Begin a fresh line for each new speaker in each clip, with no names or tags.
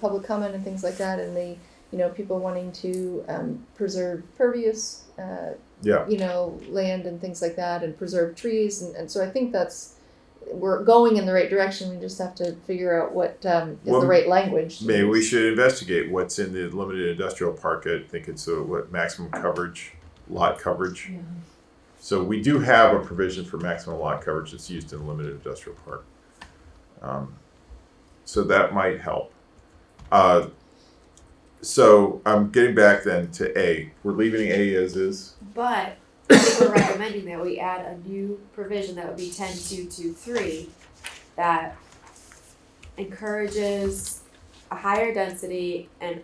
public comment and things like that, and the you know people wanting to um, preserve pervious uh,
Yeah,
you know land and things like that, and preserve trees, and, and so I think that's we're going in the right direction. We just have to figure out what um, is
Well,
the right language. to
maybe we
use.
should investigate what's in the limited industrial park. I think it's a, what maximum coverage, lot coverage. So we do have a provision for maximum lot coverage that's used in limited industrial park. Um, so that might help. Uh, so I'm getting back then to A. We're leaving A as is.
But I think we're recommending that we add a new provision that would be ten two two three that encourages a higher density and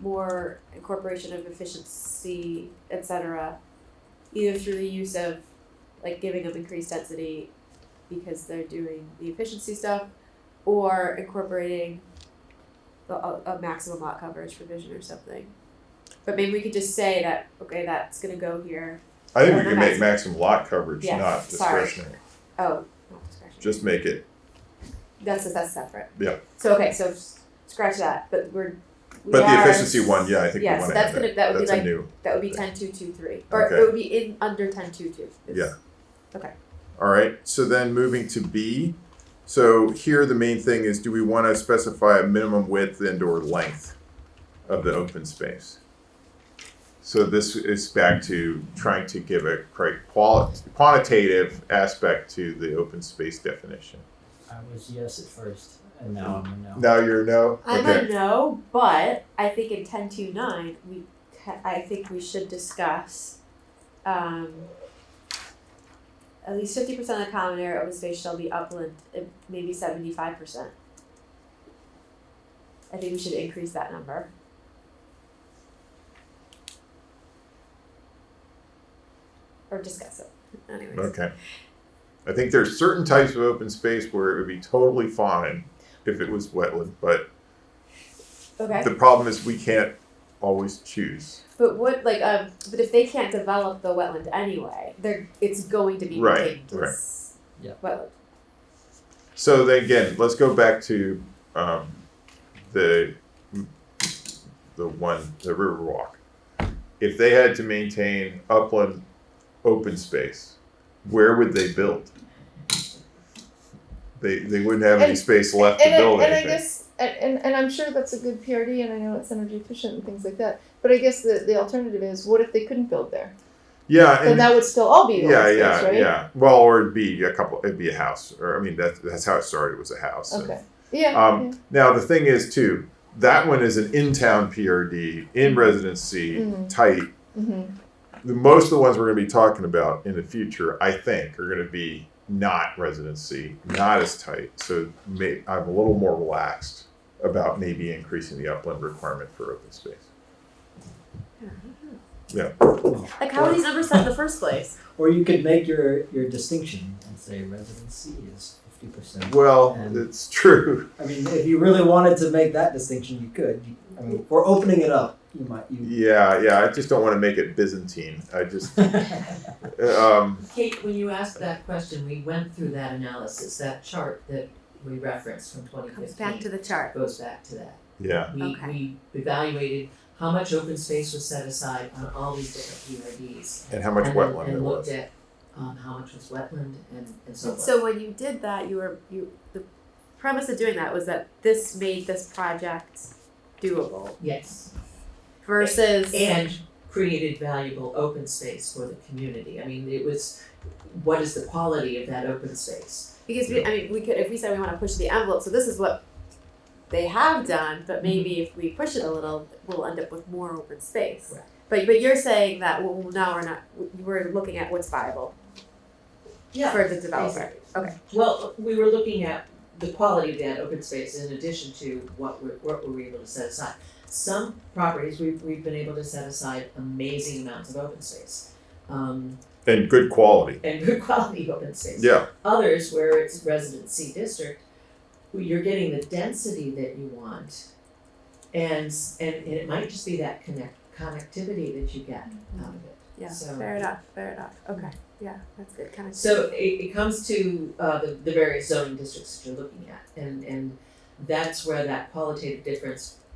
more incorporation of efficiency, et cetera, either through the use of like giving them increased density because they're doing the efficiency stuff or incorporating the, uh, a, a maximum lot coverage provision or something. But maybe we could just say that, okay, that's gonna go here.
I think we can make maximum lot coverage
Yeah,
not
sorry.
discretionary.
Oh, not discretion.
Just make it.
That's that's separate.
Yeah.
So okay, so s- scratch that, but we're. we
But the
are-
efficiency one, yeah, I think we
Yes,
want to
that's
add that.
gonna- that would be
that's
like-
a new.
That would be ten two two three, or
Okay.
it would be in under ten two two.
Yeah. All right, so then moving to B. So here, the main thing is, do we want to specify a minimum width and or length of the open space? So this is back to trying to give a cri- quali- quantitative aspect to the open space definition.
I was yes at first, and now I'm a no.
Now you're no?
I'm
Okay.
a no, but I think in ten two nine we, ca- I think we should discuss, um. At least fifty percent of the common area open space shall be upland, eh, maybe seventy five percent. I think we should increase that number. Or discuss it, anyways.
Okay. I think there's certain types of open space where it would be totally fine if it was wetland, but
Okay.
the problem is we can't always choose.
But what like um but if they can't develop the wetland anyway, they're it's going to be
Right,
ridiculous.
right. Yeah.
Wetland.
So then again, let's go back to um, the the one the Riverwalk. If they had to maintain upland open space, where would they build? They they wouldn't have any
And-
space left to
and,
build
I, and I
anything.
guess and, and, and I'm sure that's a good PRD and I know it's energy efficient and things like that. But I guess the, the alternative is what if they couldn't build there?
yeah,
Then
and,
that would still all be
yeah,
open
yeah,
space, right?
yeah. Well, or it'd be a couple. It'd be a house, or I mean, that's that's how it started. Was a house. and-
Okay. Yeah.
Um, Now the thing is too, that one is an in-town PRD,
Mm-hmm.
in residency,
Mhm.
tight.
yeah. hmm
the most of the ones we're going to be talking about in the future, I think, are going to be not residency, not as tight. So may, I'm a little more relaxed about maybe increasing the upland requirement for open space.
Like how are these numbers set in the first place?
Or you could make your, your distinction and say residency is fifty percent.
Well,
And-
it's true.
I mean, if you really wanted to make that distinction, you could. You- I mean, we're opening it up. You might. You.
Yeah, yeah. I just don't want to make it Byzantine. I just, um,
Kate, when you asked that question, we went through that analysis, that chart that we referenced from twenty fifteen.
Comes back to the chart.
Goes back to that.
yeah,
We,
Okay.
we evaluated how much open space was set aside on all these different PRDs.
and how much
and then-
wetland there
And looked
was.
at, um, how much was wetland and, and so
And
forth.
so when you did that you were you the premise of doing that was that this made this project doable
Yes,
versus
and created valuable open space for the community. I mean, it was, what is the quality of that open space?
because we I mean we could if we said we want to push the envelope, so this is what they have done,
Mm-hmm.
but maybe if we push it a little, we'll end up with more open space.
Right.
But but you're saying that well now we're not we're looking at what's viable for the developer. Okay.
Well, we were looking at the quality of that open space in addition to what were, what were we able to set aside. Some properties, we've, we've been able to set aside amazing amounts of open space, um,
And good quality.
and good quality open space.
Yeah,
Others, where it's residency district, where you're getting the density that you want. And, s- and, and it might just be that connect, connectivity that you get out of it.
Yeah.
So-
Fair enough. Fair enough. Okay. Yeah, that's good. Kind of
So it, it comes to uh, the, the various zoning districts that you're looking at, and, and that's where that qualitative difference